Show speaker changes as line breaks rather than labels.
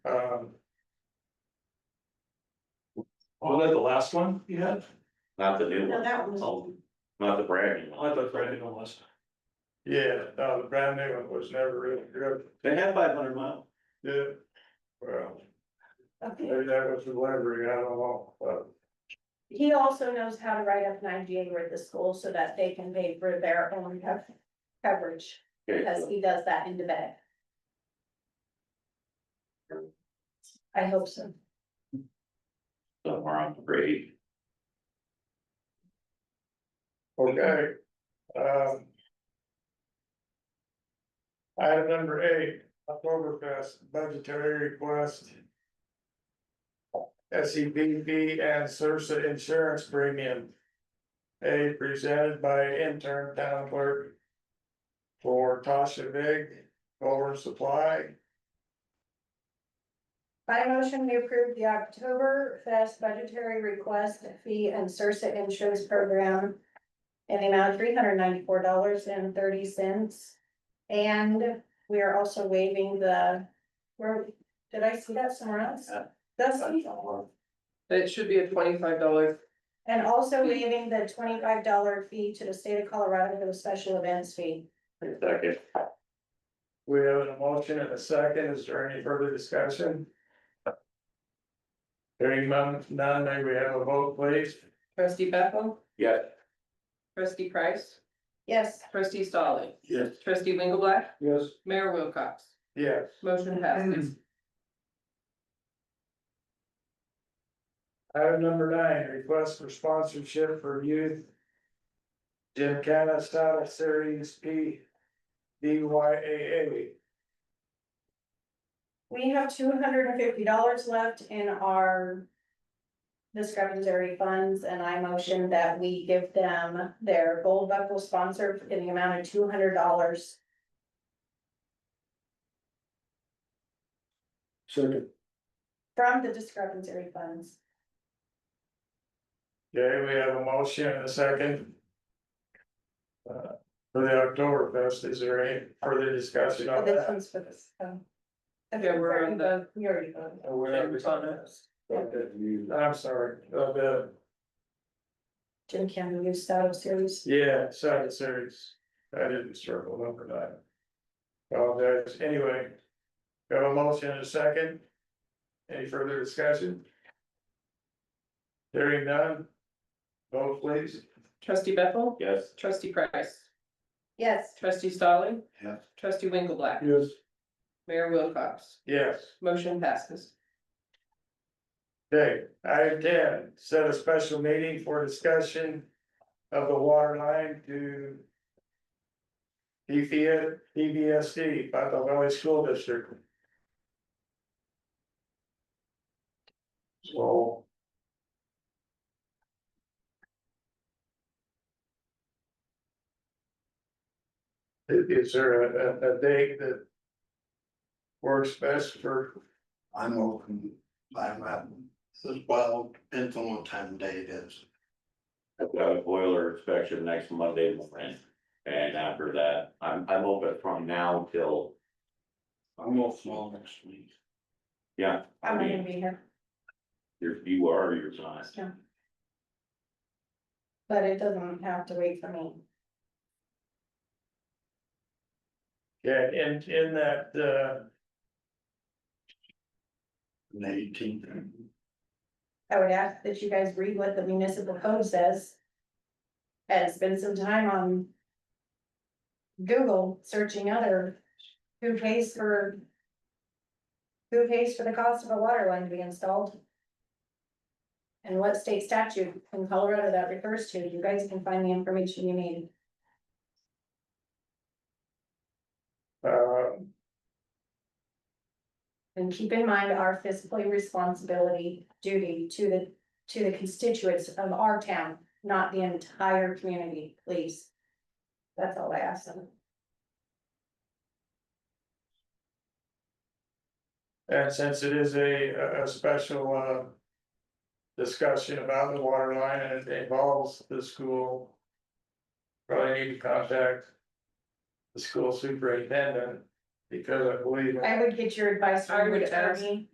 Um,
that the last one you had?
Not the new
No,
one,
that was.
Oh, not the brand new
I
one.
thought Brandon was.
Yeah, no, the brand new one was never really good,
They had five hundred mile.
yeah. Well,
Okay.
maybe that was the library, I don't know, but
He also knows how to write up an IGA with the school so that they can pay for their own cov- coverage, because he does that in Quebec. I hope so.
Somewhere on the grade.
Okay, um. Item number eight, Oktoberfest budgetary request. S E B B and Sursa Insurance Premium. A presented by intern town clerk. For Tasha Vig, Culver Supply,
By motion, we approve the October Fest budgetary request fee and Sursa insurance program in the amount of three hundred ninety-four dollars and thirty cents. And we are also waiving the, where, did I see that somewhere else? That's.
It should be a twenty-five dollar,
And also waiving the twenty-five dollar fee to the state of Colorado for the special events fee.
Second,
we have a motion and a second, is there any further discussion? Hearing none, none, may we have a vote please?
trustee Bethel,
yeah,
trustee Price,
Yes,
trustee Stalling,
Yes.
trustee Winkleblack,
Yes.
mayor Wilcox,
Yes.
motion passes.
Item number nine, request for sponsorship for youth. Jim Canna Saddle Series P D Y A
we have two hundred and fifty dollars left in our discretionary funds, and I motion that we give them their gold buckle sponsor in the amount of two hundred dollars.
Second.
From the discretionary funds.
Okay, we have a motion and a second. Uh, For the October fest, is there any further discussion
So
on
This
that?
one's for this. um,
Oh, uh, Yeah, we're on the-
We already voted.
Uh, we're not- Okay, I'm sorry, uh, the,
Jim Cannon, you started series.
yeah, Saddle Series, I didn't circle number nine. Oh, there's, anyway. we Have a motion and a second. Any further discussion? Hearing none. Vote please.
Trustee Bethel,
yes,
trustee Price,
Yes.
trustee Stalling.
Yes.
Trustee Winkleblack,
Yes.
mayor Wilcox,
Yes,
motion passes.
okay, item ten, set a special meeting for discussion of the water line to. PVS, PVSD, Bethel Valley School District. So. Is is there a, a, a date that? Works best for,
I'm open, I'm at, as well, depends on what time of day it is.
I've got a boiler inspection next Monday morning. And after that, I'm, I'm open from now till,
I'm off all next week.
yeah, I
I'm not gonna
mean,
be here,
you're, you are, or you're not.
but it doesn't have to wait for me.
yeah, in, in that, uh.
The eighteenth,
I would ask that you guys read what the municipal code says. And spend some time on. Google searching other, who pays for. Who pays for the cost of a water line to be installed? And what state statute in Colorado that refers to, you guys can find the information you need.
Uh,
And keep in mind our fiscally responsibility duty to the, to the constituents of our town, not the entire community, please. That's all I ask them.
and since it is a, a- a special, uh. Discussion about the water line and it involves the school. Probably need to contact. The school superintendent, because I believe.
I would get your advice
I
from your
would ask-
attorney.